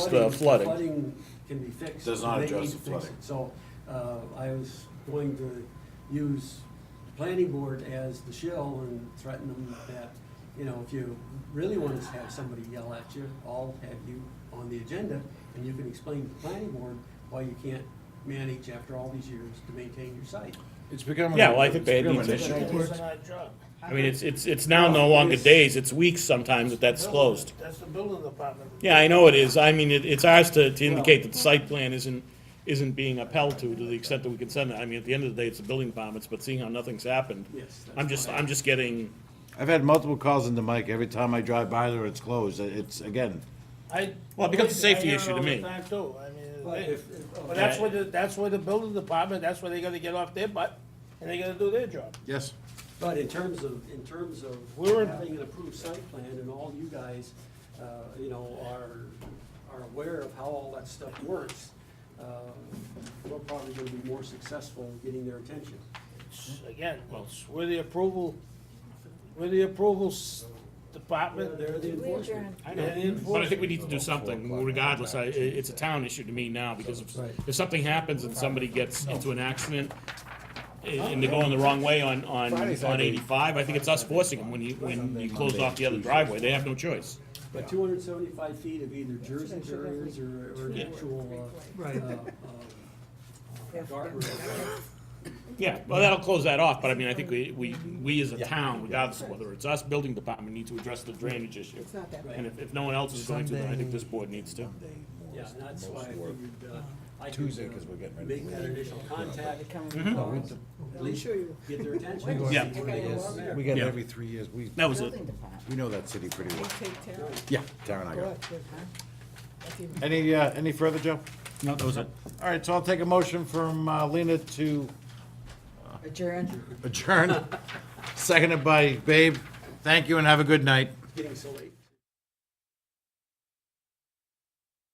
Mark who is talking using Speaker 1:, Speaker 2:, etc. Speaker 1: the flooding.
Speaker 2: Flooding can be fixed.
Speaker 3: Does not
Speaker 2: They
Speaker 3: address the
Speaker 2: need to fix
Speaker 3: flooding.
Speaker 2: it. So, uh, I was going to use the planning board as the shill and threaten them that, you know, if you really want to have somebody yell at you, I'll have you on the agenda, and you can explain to the planning board why you can't manage after all these years to maintain your site.
Speaker 4: It's becoming.
Speaker 1: Yeah, well, I think
Speaker 4: it's
Speaker 1: they
Speaker 4: becoming
Speaker 1: need to-
Speaker 4: an issue.
Speaker 5: It's an odd job.
Speaker 1: I mean, it's, it's, it's now no longer days, it's weeks sometimes that that's closed.
Speaker 5: That's the building department.
Speaker 1: Yeah, I know it is. I mean, it, it's ours to, to indicate that the site plan isn't, isn't being upheld to, to the extent that we can send it. I mean, at the end of the day, it's the building departments, but seeing how nothing's happened,
Speaker 2: Yes, that's
Speaker 1: I'm just,
Speaker 2: fine.
Speaker 1: I'm just getting,
Speaker 4: I've had multiple calls into Mike. Every time I drive by there, it's closed. It's, again,
Speaker 5: I.
Speaker 1: Well, it becomes a safety
Speaker 5: I hear it
Speaker 1: issue to
Speaker 5: all the
Speaker 1: me.
Speaker 5: time, too. I mean,
Speaker 2: But
Speaker 5: they-
Speaker 2: if- if-
Speaker 5: But that's where, the- that's where the building department, that's where they gotta get off their butt, and they gotta do their job.
Speaker 4: yes.
Speaker 2: But in terms of, in terms of
Speaker 5: We're in-
Speaker 2: having an approved site plan and all you guys, uh, you know, are, are aware of how all that stuff works, uh, we're probably gonna be more successful in getting their attention.
Speaker 5: It's- Again, it's where the approval, where the approvals department,
Speaker 2: They're the
Speaker 6: We
Speaker 2: enforcement.
Speaker 6: adjourn.
Speaker 1: but I
Speaker 5: they're the
Speaker 1: think
Speaker 5: enforcement.
Speaker 1: we need to do something regardless. I, i- it's a town issue to me now because if,
Speaker 2: Right.
Speaker 1: if something happens and somebody gets into an accident a- and they're going the wrong way on, on,
Speaker 4: Friday's
Speaker 1: on
Speaker 4: Saturday.
Speaker 1: eighty-five, I think it's us forcing them when you, when you close off the other driveway. They have no choice.
Speaker 2: But two hundred and seventy-five feet of either Jersey barriers or, or an
Speaker 6: Yeah.
Speaker 2: actual, uh, uh, uh, guardrail.
Speaker 1: Yeah, well, that'll close that off, but I mean, I think we, we, we as a town, regardless of whether it's us, building department, need to address the drainage issue.
Speaker 6: It's not that bad.
Speaker 1: And if, if no one else is going to, then I think this board needs to.
Speaker 2: Yeah, and that's why I figured, uh, I could.
Speaker 4: Tuesday,
Speaker 2: uh,
Speaker 4: 'cause we're getting ready to
Speaker 2: Make that
Speaker 4: leave.
Speaker 2: initial
Speaker 1: Mm-hmm.
Speaker 2: contact.
Speaker 6: Mhm.
Speaker 2: At least get their attention.
Speaker 1: Yeah.
Speaker 4: We get it
Speaker 1: Yeah.
Speaker 4: every three years. We,
Speaker 1: That was it.
Speaker 6: Building department.
Speaker 4: we know that city pretty
Speaker 6: They
Speaker 4: well.
Speaker 6: take care of it,
Speaker 4: Yeah, Darren, I got it.
Speaker 6: huh? That's even-
Speaker 4: Any, uh, any further, Joe?
Speaker 1: No, that was it.
Speaker 4: All right, so I'll take a motion from uh, Lena to
Speaker 6: Adjourn.
Speaker 4: adjourn, seconded by Babe. Thank you and have a good night.
Speaker 2: Getting so late.